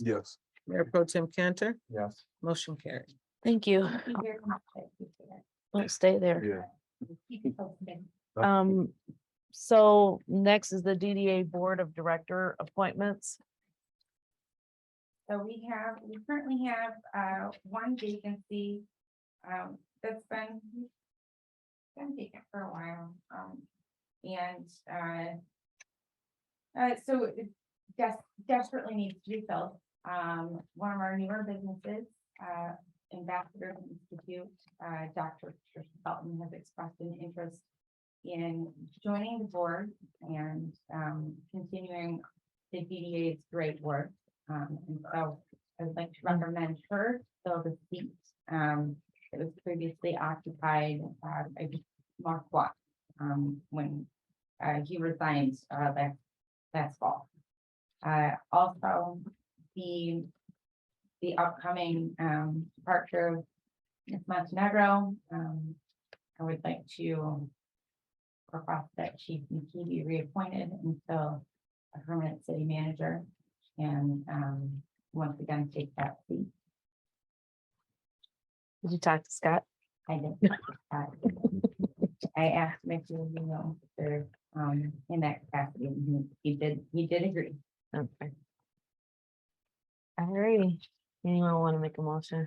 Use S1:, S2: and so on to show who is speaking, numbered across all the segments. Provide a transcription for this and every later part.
S1: Yes.
S2: Mayor Pro Tim Cantor,
S1: Yes.
S2: motion carried.
S3: Thank you. Don't stay there.
S1: Yeah.
S3: Um, so next is the DDA Board of Director appointments.
S4: So we have, we currently have uh one vacancy um that's been. Been vacant for a while, um and uh. Uh so it des- desperately needs to be filled. Um one of our newer businesses, uh Ambassador Institute, uh Dr. Trish Felton has expressed an interest. In joining the board and um continuing the DDA's great work. Um, and so I would like to recommend her fill the seat. Um, it was previously occupied, uh, by Mark Watt, um, when, uh, he resigned, uh, last, last fall. Uh, also, the, the upcoming, um, departure of Ms. Montenegro, um, I would like to request that she she be reappointed until a permanent city manager and um, once again, take that seat.
S3: Did you talk to Scott?
S4: I did. uh, I asked Mitchell, you know, if they're um, in that capacity, and he he did, he did agree.
S3: Okay. Alrighty, anyone want to make a motion?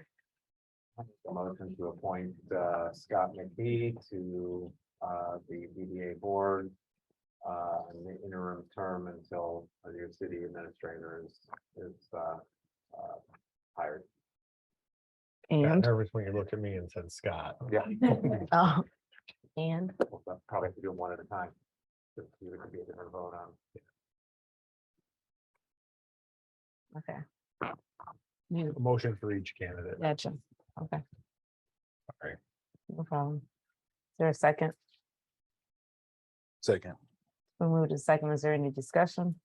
S5: A motion to appoint uh, Scott McKee to uh, the BDA board. uh, in the interim term until a new city administrator is, is uh, uh, hired.
S6: Got
S3: And,
S6: nervous when you looked at me and said Scott.
S5: Yeah. We'll
S3: oh, and,
S5: Probably have to do them one at a time. Just give it to be a different vote on.
S3: okay. You-
S6: A motion for each candidate.
S3: Gotcha, okay.
S6: Sorry.
S3: No problem. Is there a second?
S1: Second.
S3: We moved to second. Is there any discussion?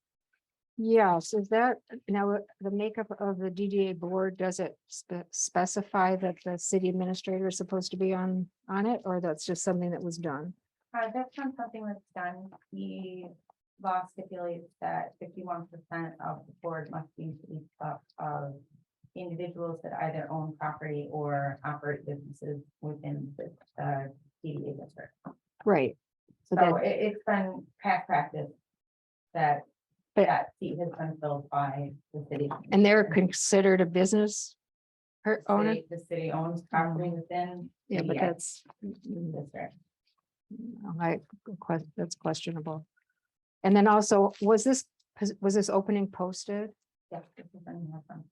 S7: Yes, is that, now, uh, the makeup of the DDA board, does it spe- specify that the city administrator is supposed to be on, on it, or that's just something that was done?
S4: Uh, that's not something that's done. The law stipulates that fifty-one percent of the board must be made up of individuals that either own property or operate businesses within the uh, DDA district.
S7: Right. So
S4: So
S7: that,
S4: it, it's been past practice that
S7: But-
S4: that seat has been filled by the city.
S7: and they're considered a business per
S4: The
S7: owner? Mm-hmm.
S4: city- The city owns property within.
S7: Yeah, but
S4: the, uh,
S7: that's, Mm-hmm.
S4: district.
S7: I, que- that's questionable. And then also, was this, pos- was this opening posted?
S4: Yeah, this is in here from-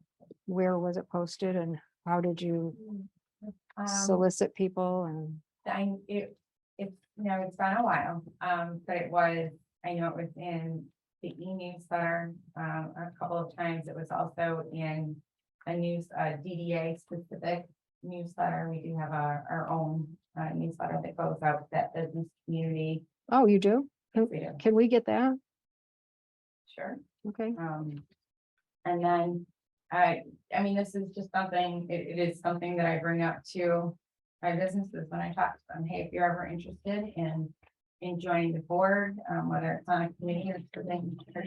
S7: Where was it posted and how did you
S4: Um,
S7: solicit people and?
S4: I, it, it's, no, it's been a while, um, but it was, I know it was in the e-newsletter, um, a couple of times. It was also in a news, uh, DDA specific newsletter. We do have our, our own, uh, newsletter that goes out with that business community.
S7: Oh, you do?
S4: We do,
S7: Can we get that?
S4: Sure.
S7: Okay.
S4: Um, and then, I, I mean, this is just something, it, it is something that I bring up to my businesses when I talk to them, hey, if you're ever interested in, in joining the board, um, whether it's on a committee or something. or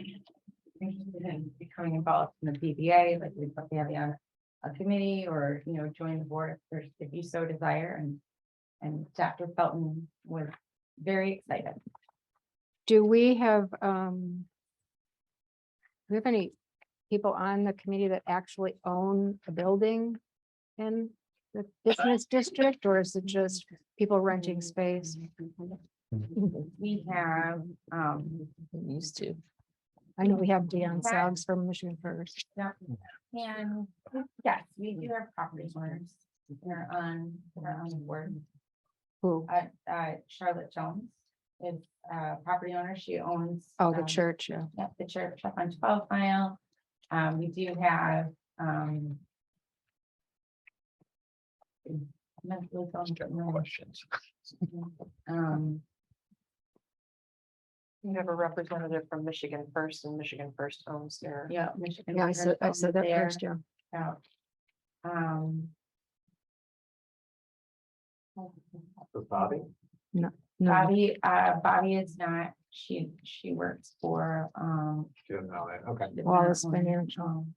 S4: Interested in becoming involved in the BBA, like we'd love to have you on a committee or, you know, join the board if there's, if you so desire and. And Dr. Felton was very excited.
S7: Do we have, um, do we have any people on the committee that actually own a building in the business district, or is it just people renting space? Mm-hmm.
S4: We have, um,
S3: Used to.
S7: I know we have Deion
S4: Right.
S7: Suggs from Michigan First.
S4: Yeah, and yes, we do have property owners. They're on, they're on the board.
S7: Who?
S4: Uh, uh, Charlotte Jones is a property owner. She owns.
S7: Oh, the
S4: um,
S7: church, yeah.
S4: yeah, the church up on twelve mile. Um, we do have, um. mentally ill
S6: Questions.
S4: Um,
S8: You have a representative from Michigan First and Michigan First owns their.
S4: yeah. Michigan
S7: Yeah, I
S4: First
S7: said, I
S4: owns
S7: said that
S4: their-
S7: first, yeah.
S4: out. Um.
S5: Does Bobby?
S7: No,
S4: Bobby, uh, Bobby is not, she, she works for, um.
S5: She doesn't know that. Okay.
S4: the
S7: Wallace
S4: Maryland,
S7: Financial.
S4: um,